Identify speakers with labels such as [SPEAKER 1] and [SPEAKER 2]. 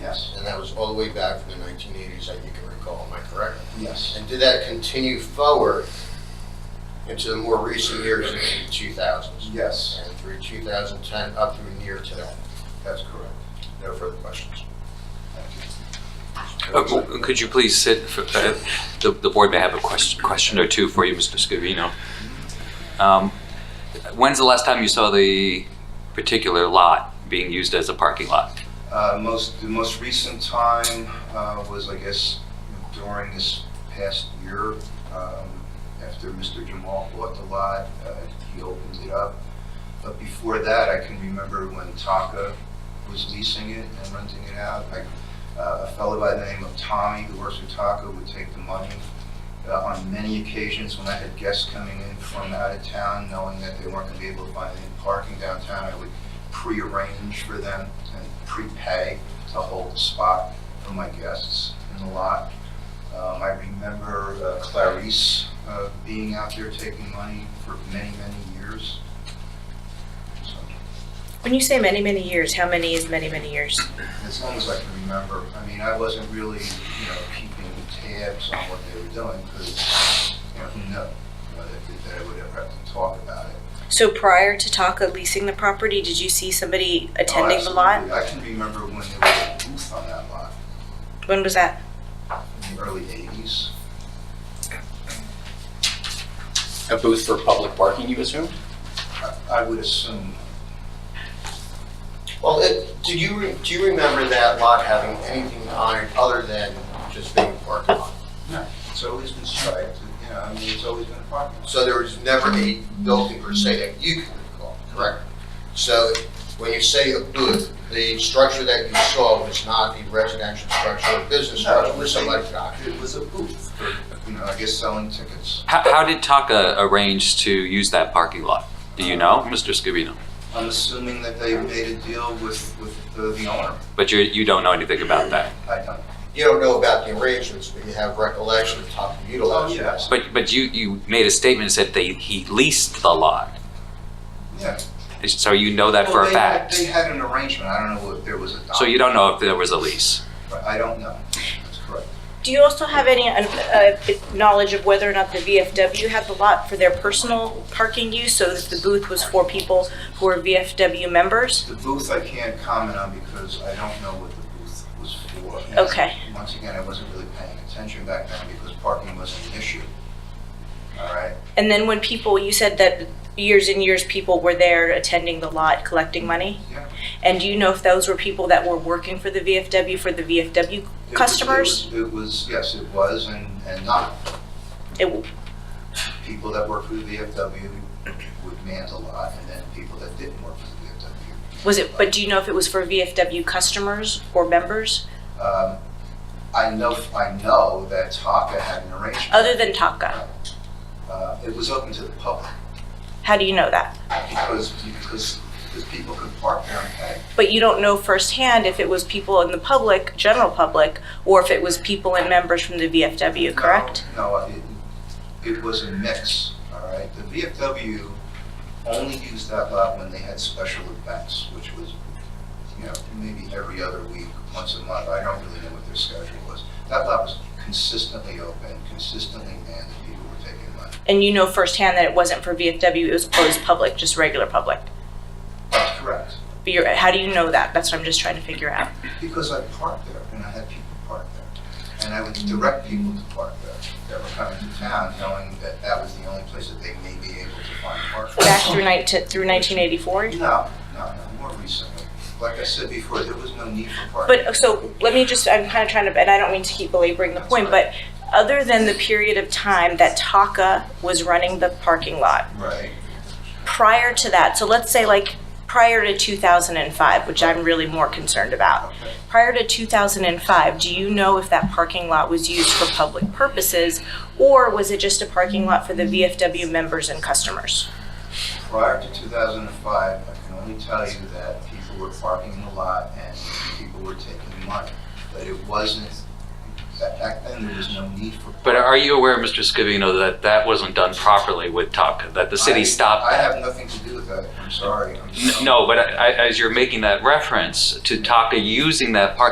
[SPEAKER 1] Yes,
[SPEAKER 2] And that was all the way back from the 1980s, I think I recall, am I correct?
[SPEAKER 1] yes,
[SPEAKER 2] And did that continue forward into the more recent years, into the 2000s?
[SPEAKER 1] yes,
[SPEAKER 2] And through 2010, up through near today?
[SPEAKER 1] that's correct.
[SPEAKER 2] No further questions.
[SPEAKER 3] Uh, w- Could you please sit, for- uh, the the board may have a question question or two for you, Mr. Scavino. Um, When's the last time you saw the particular lot being used as a parking lot?
[SPEAKER 1] Uh, most, the most recent time, uh, was, I guess, during this past year, um, after Mr. Jamal bought the lot, uh, he opened it up. But before that, I can remember when Taka was leasing it and renting it out. Like, uh, a fellow by the name of Tommy, who works with Taka, would take the money. Uh, on many occasions, when I had guests coming in from out of town, knowing that they weren't gonna be able to find any parking downtown, I would pre-arrange for them and prepay to hold a spot for my guests in the lot. Um, I remember uh, Clarice, uh, being out there taking money for many, many years. So,
[SPEAKER 4] When you say many, many years, how many is many, many years?
[SPEAKER 1] As long as I can remember, I mean, I wasn't really, you know, keeping tabs on what they were doing, because, you know, who knew? You know, that, that I would ever have to talk about it.
[SPEAKER 4] So prior to Taka leasing the property, did you see somebody attending the
[SPEAKER 1] Oh,
[SPEAKER 4] lot?
[SPEAKER 1] absolutely. I can remember when there was a booth on that lot,
[SPEAKER 4] When was that?
[SPEAKER 1] in the early eighties.
[SPEAKER 5] A booth for public parking, you assume?
[SPEAKER 1] I would assume,
[SPEAKER 2] Well, it- do you, re- do you remember that lot having anything on it other than just being a parking lot?
[SPEAKER 1] it's always been striped, you know, I mean, it's always been a parking lot.
[SPEAKER 2] So there was never a building per se that you could recall, correct? So when you say a booth, the structure that you saw was not a residential structure or business structure where somebody could occupy.
[SPEAKER 1] It was a booth for, you know, I guess selling tickets.
[SPEAKER 3] How how did Taka arrange to use that parking lot? Do you know, Mr. Scavino?
[SPEAKER 1] I'm assuming that they made a deal with, with the the owner.
[SPEAKER 3] But you you don't know anything about that.
[SPEAKER 1] I don't.
[SPEAKER 2] You don't know about the arrangements, but you have recollection of top of
[SPEAKER 1] Oh,
[SPEAKER 2] utilized.
[SPEAKER 1] yes.
[SPEAKER 3] But but you you made a statement that they he leased the lot,
[SPEAKER 1] Yeah.
[SPEAKER 3] so you know that for
[SPEAKER 1] Well,
[SPEAKER 3] a
[SPEAKER 1] Oh, they had-
[SPEAKER 3] fact.
[SPEAKER 1] They had an arrangement, I don't know if there was a.
[SPEAKER 3] So you don't know if there was a lease?
[SPEAKER 1] document. I don't know, that's correct.
[SPEAKER 4] Do you also have any uh, knowledge of whether or not the VFW had the lot for their personal parking use? So that the booth was for people who were VFW members?
[SPEAKER 1] The booth I can't comment on because I don't know what the booth was for.
[SPEAKER 4] Okay.
[SPEAKER 1] Once again, I wasn't really paying attention back then because parking wasn't an issue. All right,
[SPEAKER 4] And then when people, you said that years and years people were there attending the lot, collecting money?
[SPEAKER 1] yeah. There
[SPEAKER 4] And do you know if those were people that were working for the VFW, for the VFW
[SPEAKER 1] was-
[SPEAKER 4] customers?
[SPEAKER 1] It was, yes, it was, and, and not.
[SPEAKER 4] It-
[SPEAKER 1] People that worked for the VFW would man the lot, and then people that didn't work for the
[SPEAKER 4] Was it, but do you know if it was for VFW customers or members,
[SPEAKER 1] VFW. Um, I know, I know that Taka had an arrangement.
[SPEAKER 4] other than Taka?
[SPEAKER 1] Uh, It was open to the public
[SPEAKER 4] How do you know that?
[SPEAKER 1] because, because, because people could park there and pay.
[SPEAKER 4] But you don't know firsthand if it was people in the public, general public, or if it was people and members from the VFW, correct?
[SPEAKER 1] No, no, it, it was a mix, all right? The VFW only used that lot when they had special events, which was, you know, maybe every other week, once a month. I don't really know what their schedule was. That lot was consistently open, consistently manned, and people were taking money.
[SPEAKER 4] And you know firsthand that it wasn't for VFW, it was closed public, just regular public?
[SPEAKER 1] That's correct,
[SPEAKER 4] But you're, how do you know that? That's what I'm just trying to figure out.
[SPEAKER 1] because I parked there and I had people park there. And I would direct people to park there that were coming to town, knowing that that was the only place that they may be able to find parking.
[SPEAKER 4] Back through nineteen, through nineteen eighty-four?
[SPEAKER 1] No, no, no, more recently. Like I said before, there was no need for parking.
[SPEAKER 4] But, uh, so, let me just, I'm kind of trying to, and I don't mean to keep belaboring the point, but other than the period of time that Taka was running the parking lot,
[SPEAKER 1] Right,
[SPEAKER 4] prior to that, so let's say like prior to 2005, which I'm really more concerned about.
[SPEAKER 1] okay.
[SPEAKER 4] Prior to 2005, do you know if that parking lot was used for public purposes or was it just a parking lot for the VFW members and customers?
[SPEAKER 1] Prior to 2005, I can only tell you that people were parking in the lot and people were taking money. But it wasn't, back- back then, there was no need for.
[SPEAKER 3] But are you aware, Mr. Scavino, that that wasn't done properly with Taka, that the city
[SPEAKER 1] I-
[SPEAKER 3] stopped
[SPEAKER 1] I
[SPEAKER 3] that?
[SPEAKER 1] have nothing to do with that, I'm sorry. I'm-
[SPEAKER 3] N- No, but I- I- as you're making that reference to Taka using that parking